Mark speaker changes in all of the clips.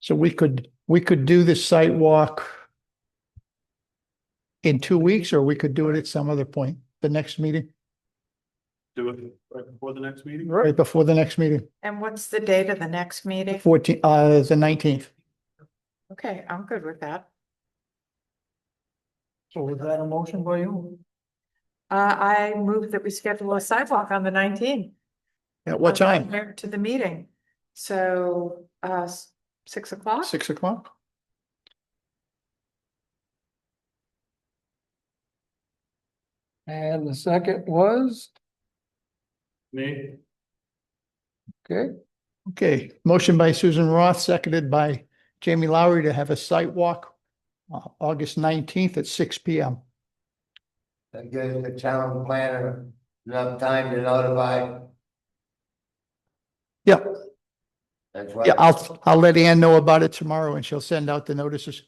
Speaker 1: So we could, we could do this site walk in two weeks, or we could do it at some other point, the next meeting,
Speaker 2: Do it right before the next meeting?
Speaker 1: right before the next meeting,
Speaker 3: And what's the date of the next meeting?
Speaker 1: fourteen, uh, the nineteenth.
Speaker 3: Okay, I'm good with that.
Speaker 1: So was that a motion by you?
Speaker 3: Uh, I move that we schedule a sidewalk on the nineteenth.
Speaker 1: At what time?
Speaker 3: To the meeting. So, uh, s- six o'clock?
Speaker 1: Six o'clock?
Speaker 4: And the second was,
Speaker 2: Me?
Speaker 4: okay,
Speaker 1: Okay, motion by Susan Roth, seconded by Jamie Lowry to have a site walk uh, August nineteenth at six P M.
Speaker 5: That gives the town planner enough time to notify.
Speaker 1: Yeah.
Speaker 5: That's why.
Speaker 1: Yeah, I'll, I'll let Ann know about it tomorrow and she'll send out the notices.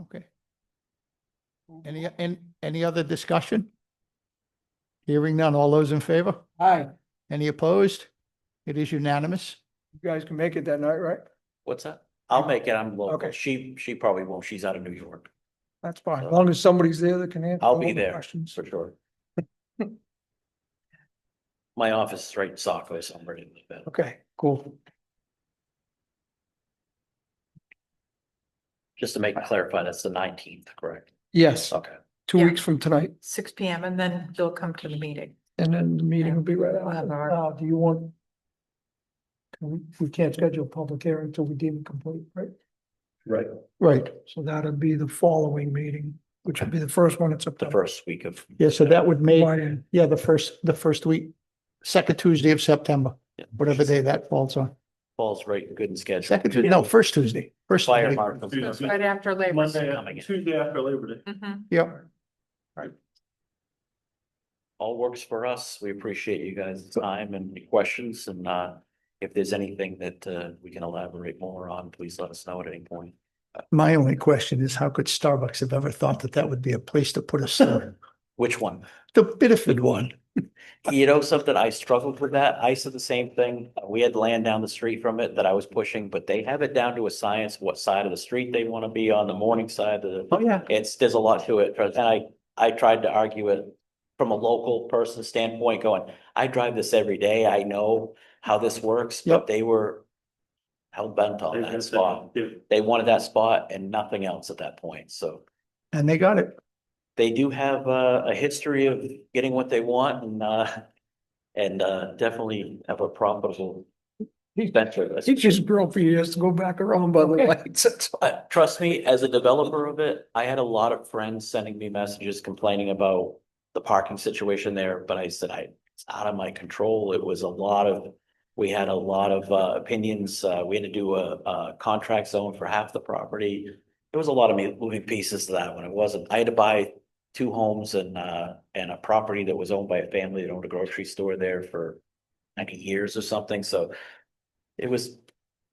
Speaker 1: Okay. Any, and any other discussion? Hearing none. All those in favor?
Speaker 4: hi,
Speaker 1: Any opposed? It is unanimous.
Speaker 4: you guys can make it that night, right?
Speaker 6: What's that? I'll make it. I'm local.
Speaker 4: Okay.
Speaker 6: She, she probably won't. She's out of New York
Speaker 4: That's fine, as long as somebody's there that can answer.
Speaker 6: I'll
Speaker 4: all
Speaker 6: be
Speaker 4: the
Speaker 6: there.
Speaker 4: Questions.
Speaker 6: for sure. My office is right in Saco somewhere in the middle.
Speaker 4: Okay, cool.
Speaker 6: Just to make it clarify, that's the nineteenth, correct?
Speaker 4: Yes,
Speaker 6: Okay.
Speaker 4: two
Speaker 3: Yeah.
Speaker 4: weeks from tonight,
Speaker 3: Six P M and then you'll come to the meeting.
Speaker 4: and then the meeting will be right
Speaker 3: We'll have
Speaker 4: after.
Speaker 3: our-
Speaker 4: Now, do you want? can We, we can't schedule a public hearing until we deem it complete, right?
Speaker 6: Right.
Speaker 1: Right.
Speaker 4: So that'll be the following meeting, which would be the first one in
Speaker 6: The
Speaker 4: September.
Speaker 6: first week of.
Speaker 1: Yeah, so that would make,
Speaker 4: Right, and
Speaker 1: yeah, the first, the first week, second Tuesday of September,
Speaker 6: Yeah.
Speaker 1: whatever day that falls on.
Speaker 6: Falls right, good and scheduled.
Speaker 1: Second, Tuesday. no, first Tuesday, first.
Speaker 6: Fire
Speaker 1: Tuesday.
Speaker 6: marshal.
Speaker 2: Yeah,
Speaker 3: That's right after Labor. Day.
Speaker 2: Monday, Tuesday after Labor Day.
Speaker 3: Mhm.
Speaker 1: Yep.
Speaker 6: All works for us. We appreciate you guys' time and your questions and, uh, if there's anything that, uh, we can elaborate more on, please let us know at any point.
Speaker 1: My only question is how could Starbucks have ever thought that that would be a place to put a store?
Speaker 6: Which one?
Speaker 1: The Bitterford one.
Speaker 6: You know something, I struggled with that. I said the same thing. We had land down the street from it that I was pushing, but they have it down to a science, what side of the street they want to be on, the morning side, the.
Speaker 1: Oh, yeah.
Speaker 6: It's, there's a lot to it, and I, I tried to argue it from a local person standpoint going, I drive this every day, I know how this works,
Speaker 1: Yep.
Speaker 6: but they were. Hell bent on that spot. They wanted that spot and nothing else at that point, so
Speaker 1: And they got it.
Speaker 6: they do have uh, a, a history of getting what they want and, uh, and, uh, definitely have a profitable venture. That's-
Speaker 4: It just grew for years to go back around by the lights. That's all.
Speaker 6: Uh, trust me, as a developer of it, I had a lot of friends sending me messages complaining about the parking situation there, but I said I, it's out of my control. It was a lot of, we had a lot of, uh, opinions. Uh, we had to do a, a contract zone for half the property. There was a lot of mo- moving pieces to that one. It wasn't, I had to buy two homes and, uh, and a property that was owned by a family that owned a grocery store there for ninety years or something, so it was,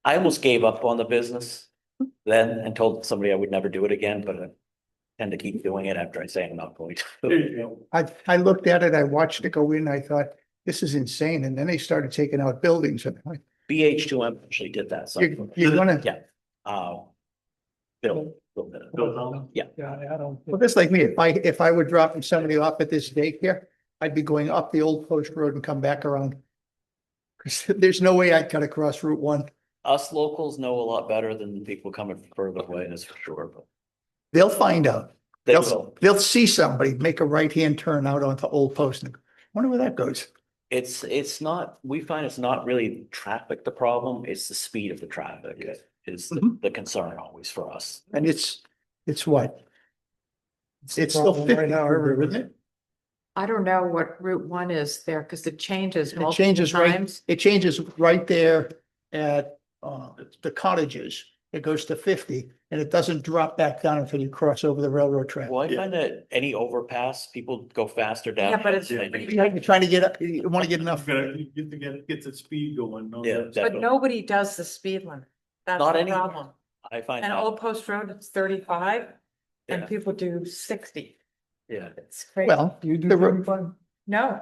Speaker 6: I almost gave up on the business then and told somebody I would never do it again, but I tend to keep doing it after I say I'm not going to.
Speaker 1: I, I looked at it, I watched it go in, I thought, this is insane. And then they started taking out buildings and I'm like,
Speaker 6: BH two M actually did that, so.
Speaker 1: you're, you're gonna,
Speaker 6: Yeah. Uh, Bill, Bill did it.
Speaker 2: Bill Cullen?
Speaker 6: Yeah.
Speaker 4: Yeah, I don't.
Speaker 1: well, that's like me. If I, if I were dropping somebody off at this daycare, I'd be going up the old post road and come back around. Cause there's no way I'd cut across Route one.
Speaker 6: Us locals know a lot better than the people coming from further away, that's for sure, but
Speaker 1: They'll find out.
Speaker 6: they
Speaker 1: They'll,
Speaker 6: will.
Speaker 1: they'll see somebody make a right-hand turn out onto Old Post and wonder where that goes.
Speaker 6: It's, it's not, we find it's not really traffic the problem, it's the speed of the traffic is the
Speaker 2: Mm-hmm.
Speaker 1: Mhm.
Speaker 6: the concern always for us.
Speaker 1: And it's, it's what? It's still
Speaker 4: problem
Speaker 1: fifty
Speaker 4: right now,
Speaker 1: forever,
Speaker 4: everybody.
Speaker 1: isn't it?
Speaker 3: I don't know what Route one is there because it changes
Speaker 1: It
Speaker 3: multiple
Speaker 1: changes right,
Speaker 3: times.
Speaker 1: it changes right there at, uh, the cottages. It goes to fifty and it doesn't drop back down until you cross over the railroad track.
Speaker 6: Well, I
Speaker 2: Yeah.
Speaker 6: find that any overpass, people go faster down.
Speaker 3: Yeah, but it's
Speaker 6: than they
Speaker 3: pretty-
Speaker 6: do.
Speaker 1: You're trying to get, up- you want to get
Speaker 2: Enough,
Speaker 1: enough.
Speaker 2: gotta get to get, get the speed going. no,
Speaker 6: Yeah,
Speaker 2: that's-
Speaker 3: But
Speaker 6: definitely.
Speaker 3: nobody does the speed limit. That's
Speaker 6: Not
Speaker 3: the
Speaker 6: anywhere.
Speaker 3: problem.
Speaker 6: I find.
Speaker 3: And
Speaker 6: that-
Speaker 3: Old Post Road, it's thirty-five
Speaker 6: Yeah.
Speaker 3: and people do sixty.
Speaker 6: Yeah.
Speaker 3: It's crazy.
Speaker 1: Well,
Speaker 4: You do
Speaker 1: The ro-
Speaker 4: thirty-five?
Speaker 3: No,